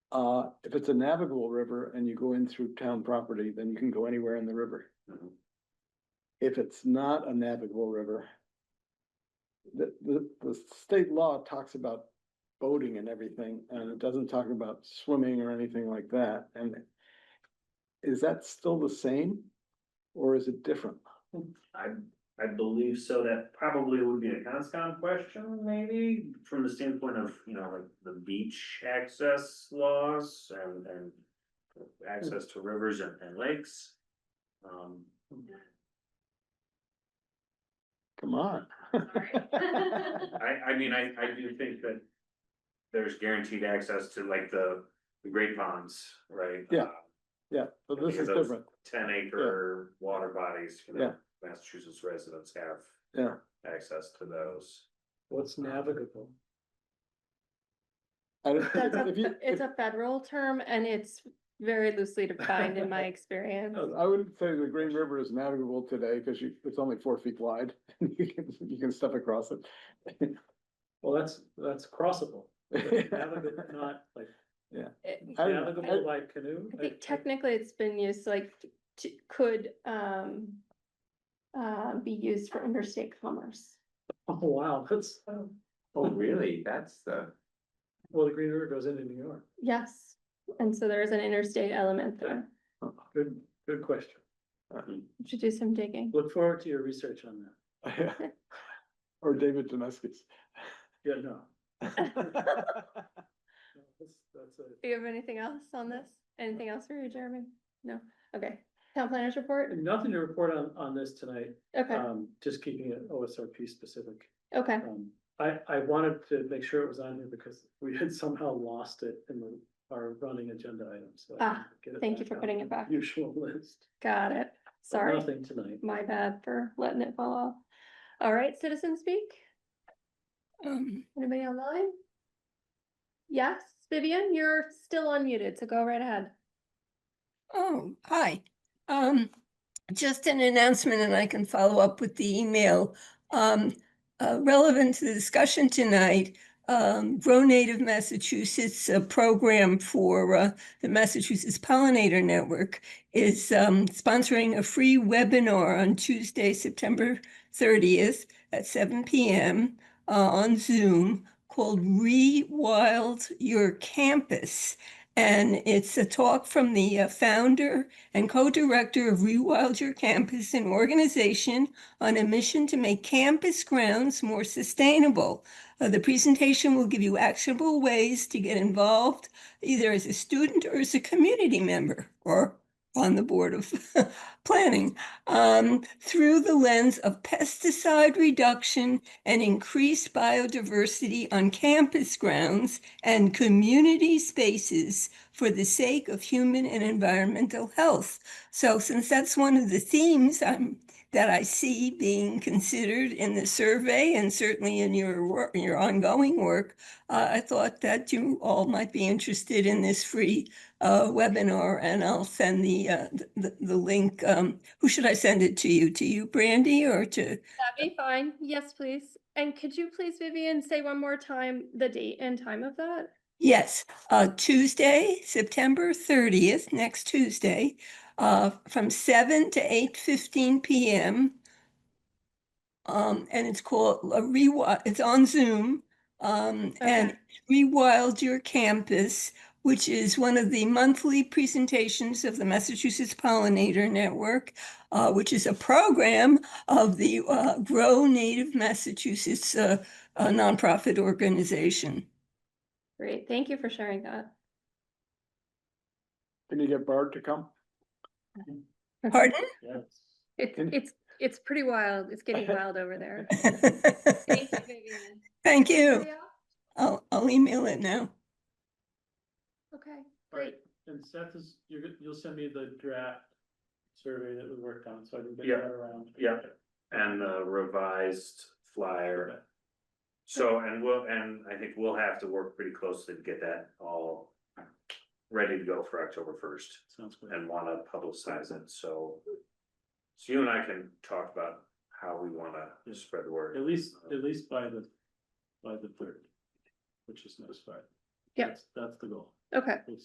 Uh, if it's a navigable river and you go in through town property, then you can go anywhere in the river. Mhm. If it's not a navigable river. The, the, the state law talks about boating and everything, and it doesn't talk about swimming or anything like that, and. Is that still the same? Or is it different? I, I believe so, that probably would be a conscom question, maybe, from the standpoint of, you know, like the beach access laws and, and. Access to rivers and, and lakes. Um, Come on. I, I mean, I, I do think that. There's guaranteed access to like the, the great ponds, right? Yeah. Yeah, so I this think is that's- different. Ten acre water bodies, you know, Massachusetts residents have. Yeah. Access to those. What's navigable? I don't- That's a, if you- if- it's a federal term and it's very loosely defined in my experience. I wouldn't say the Green River is navigable today because you, it's only four feet wide. You can, you can step across it. Well, that's, that's crossable. but Navigable, I not like It- I don't- navigable by canoe. I think technically it's been used like t- could um. Uh, be used for interstate commerce. Oh, wow, that's, Oh, really? That's the, well, the Green River goes into New York. Yes, and so there is an interstate element there. Good, good question. We Should do some digging. Look forward to your research on that. Or David Damascus. Yeah, no. no, That's, that's a. Do you have anything else on this? Anything else for you, Jeremy? No? Okay. Town planners report? Nothing to report on, on this tonight, Okay, um, just keeping it OSRP specific. okay. Um, I, I wanted to make sure it was on here because we had somehow lost it in the, our running agenda item, so. I Ah, didn't get thank you for on putting the it back. Usual list. Got it. but Sorry. Nothing tonight. My bad for letting it fall off. All right, citizen speak? Um, anybody online? Yes, Vivian, you're still unmuted, so go right ahead. Oh, hi. Um, just an announcement and I can follow up with the email. Um, uh, relevant to the discussion tonight, um, Grow Native Massachusetts, a program for, uh, the Massachusetts Pollinator Network is, um, sponsoring a free webinar on Tuesday, September thirtieth at seven PM, uh, on Zoom called Rewild Your Campus. And it's a talk from the uh, founder and co-director of Rewild Your Campus, an organization on a mission to make campus grounds more sustainable. Uh, the presentation will give you actionable ways to get involved, either as a student or as a community member or on the board of planning um, through the lens of pesticide reduction and increased biodiversity on campus grounds and community spaces for the sake of human and environmental health. So since that's one of the themes I'm, that I see being considered in the survey and certainly in your work, your ongoing work, uh, I thought that you all might be interested in this free uh, webinar and I'll send the, uh, the, the link. Um, who should I send it to you? To you, Brandy, or to? That'd be fine. Yes, please. And could you please, Vivian, say one more time the date and time of that? Yes, uh, Tuesday, September thirtieth, next Tuesday, uh, from seven to eight fifteen PM. Um, and it's called a rewild, it's on Zoom, um, and Rewild Your Campus, which is one of the monthly presentations of the Massachusetts Pollinator Network, uh, which is a program of the, uh, Grow Native Massachusetts, uh, uh, nonprofit organization. Great, thank you for sharing that. Can you get Bard to come? Pardon? Yes. It's, And- it's, it's pretty wild. It's getting wild over there. Thank you, Vivian. Thank you. Anybody else? I'll, I'll email it now. Okay, All right, great. and Seth is, you're, go- you'll send me the draft survey that we worked on, so I can get Yeah. that around. Yeah, and the revised flyer. So, and we'll, and I think we'll have to work pretty closely to get that all ready to go for October first Sounds good. and wanna publicize it, so. So you and I can talk about how we wanna spread the word. At least, at least by the, by the third, which is next Friday. Yeah. That's- That's the goal. Okay. We'll